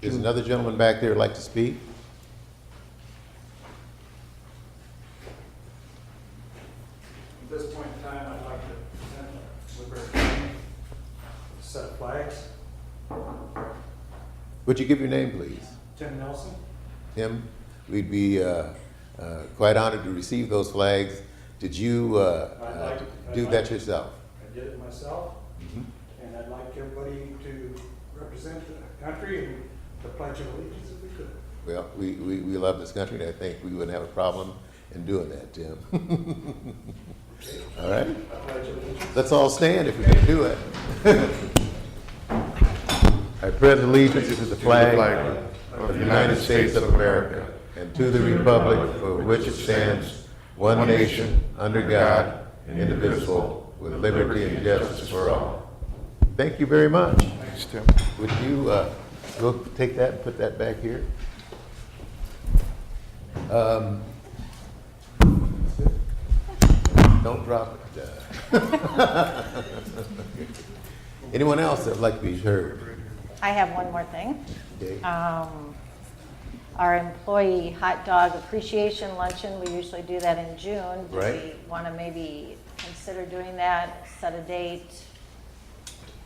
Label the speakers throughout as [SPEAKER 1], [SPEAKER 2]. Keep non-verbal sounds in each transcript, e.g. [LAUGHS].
[SPEAKER 1] Is another gentleman back there who'd like to speak?
[SPEAKER 2] At this point in time, I'd like to present Woodbury County with a set of flags.
[SPEAKER 1] Would you give your name, please?
[SPEAKER 2] Tim Nelson,
[SPEAKER 1] Tim, we'd be uh, uh, quite honored to receive those flags. Did you uh,
[SPEAKER 2] I'd like-
[SPEAKER 1] uh,
[SPEAKER 2] I'd
[SPEAKER 1] do
[SPEAKER 2] like-
[SPEAKER 1] that yourself?
[SPEAKER 2] I did it myself, and I'd like everybody to represent the country and the Pledge of Allegiance if we could.
[SPEAKER 1] Well, we, we, we love this country, and I think we wouldn't have a problem in doing that, Tim. [LAUGHS] All right?
[SPEAKER 2] I pledge allegiance
[SPEAKER 1] Let's all stand if we can do it. I pledge allegiance to the flag of the United States of America and to the republic for which it stands, one nation, under God, indivisible, with liberty and justice for all. Thank you very much.
[SPEAKER 3] Thanks, Tim.
[SPEAKER 1] Would you, uh, go take that and put that back here? Um, Don't drop it. uh. Anyone else that'd like to be heard?
[SPEAKER 4] I have one more thing.
[SPEAKER 1] Okay.
[SPEAKER 4] Um, Our employee hot dog appreciation luncheon, we usually do that in June. Do
[SPEAKER 1] Right.
[SPEAKER 4] we want to maybe consider doing that, set a date?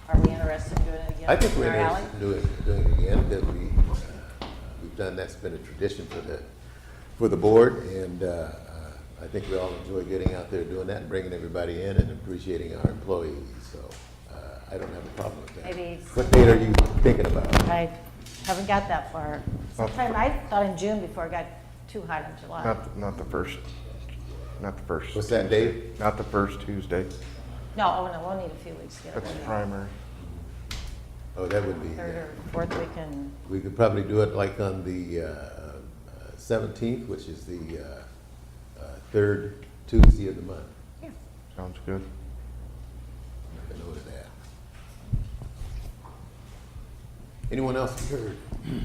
[SPEAKER 4] Are we interested in doing it again?
[SPEAKER 1] I think we're
[SPEAKER 4] in our alley?
[SPEAKER 1] interested in doing, doing it again, because we, uh, we've done, that's been a tradition for the, for the board, and, uh, uh, I think we all enjoy getting out there doing that and bringing everybody in and appreciating our employees, so, uh, I don't have a problem with that.
[SPEAKER 4] Maybe it's-
[SPEAKER 1] What date are you thinking about?
[SPEAKER 4] I haven't got that far. Sometime, I thought in June before it got too hot in July.
[SPEAKER 3] Not, not the first, not the
[SPEAKER 1] What's
[SPEAKER 3] first,
[SPEAKER 1] that date?
[SPEAKER 3] not the first Tuesday.
[SPEAKER 4] No, oh no, we'll need a few weeks to get it.
[SPEAKER 3] That's the
[SPEAKER 4] ready.
[SPEAKER 3] primary.
[SPEAKER 1] Oh, that would be,
[SPEAKER 4] Third
[SPEAKER 1] yeah.
[SPEAKER 4] or fourth weekend,
[SPEAKER 1] we could probably do it like on the uh, seventeenth, which is the, uh, uh, third Tuesday of the month.
[SPEAKER 4] yeah.
[SPEAKER 3] Sounds good.
[SPEAKER 1] Make a note of that. Anyone else be heard? [CLEARS THROAT]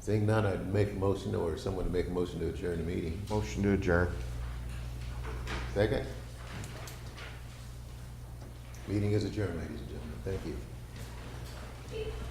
[SPEAKER 1] Seeing none, I'd make a motion or someone to make a motion to adjourn the meeting.
[SPEAKER 3] Motion to adjourn.
[SPEAKER 1] Second? Meeting is adjourned, ladies and gentlemen. Thank you.